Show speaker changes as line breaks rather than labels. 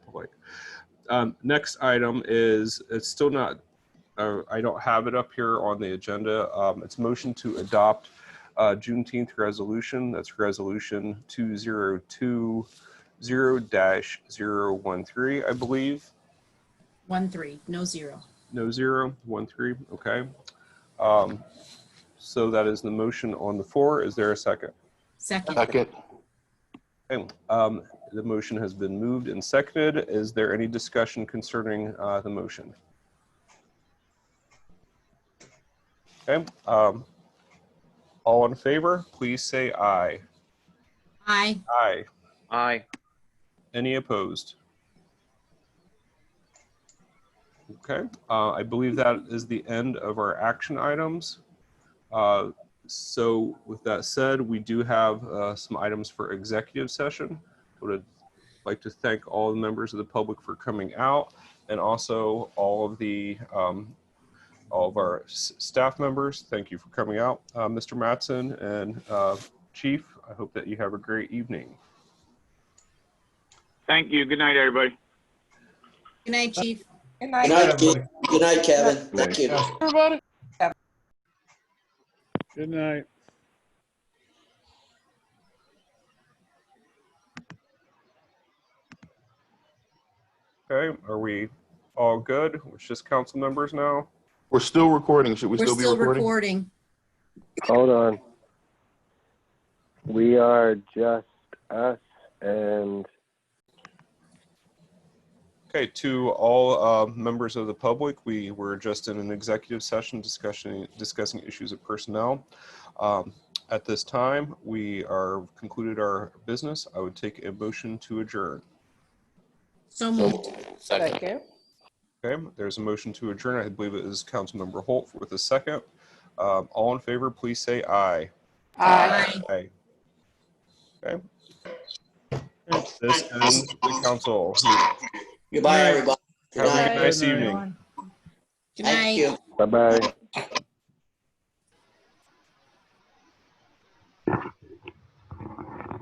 like. Um, next item is, it's still not, uh, I don't have it up here on the agenda. Um, it's motion to adopt, uh, Juneteenth resolution. That's resolution two zero two zero dash zero one three, I believe.
One, three, no zero.
No zero, one three, okay. Um, so that is the motion on the floor. Is there a second?
Second,
Second.
Okay, um, the motion has been moved and seconded. Is there any discussion concerning, uh, the motion? Okay, um, all in favor, please say aye.
aye.
Aye.
Aye.
Any opposed? Okay, uh, I believe that is the end of our action items. Uh, So with that said, we do have uh, some items for executive session. Would like to thank all the members of the public for coming out and also all of the, um, all of our s- staff members. Thank you for coming out. Uh, Mr. Mattson and uh, Chief, I hope that you have a great evening.
Thank you. Good night, everybody.
Good night, chief.
Good
Good
night.
night, Keith. Good night, Kevin. Thank you.
Everybody.
Good night.
Okay, are we all good? It's just council members now?
We're still recording. Should we
We're
still be
still
recording?
recording.
Hold on. We are just us and
Okay, to all uh, members of the public, we were just in an executive session discussion, discussing issues of personnel. Um, At this time, we are concluded our business. I would take a motion to adjourn.
So moved.
Second.
Second.
Okay, there's a motion to adjourn. I believe it is Councilmember Holt with a second. Um, All in favor, please say aye.
Aye.
Aye. Okay. This is the council.
Goodbye, everybody. Good
Have a
night.
nice evening.
Good
Thank
night.
you.
bye bye.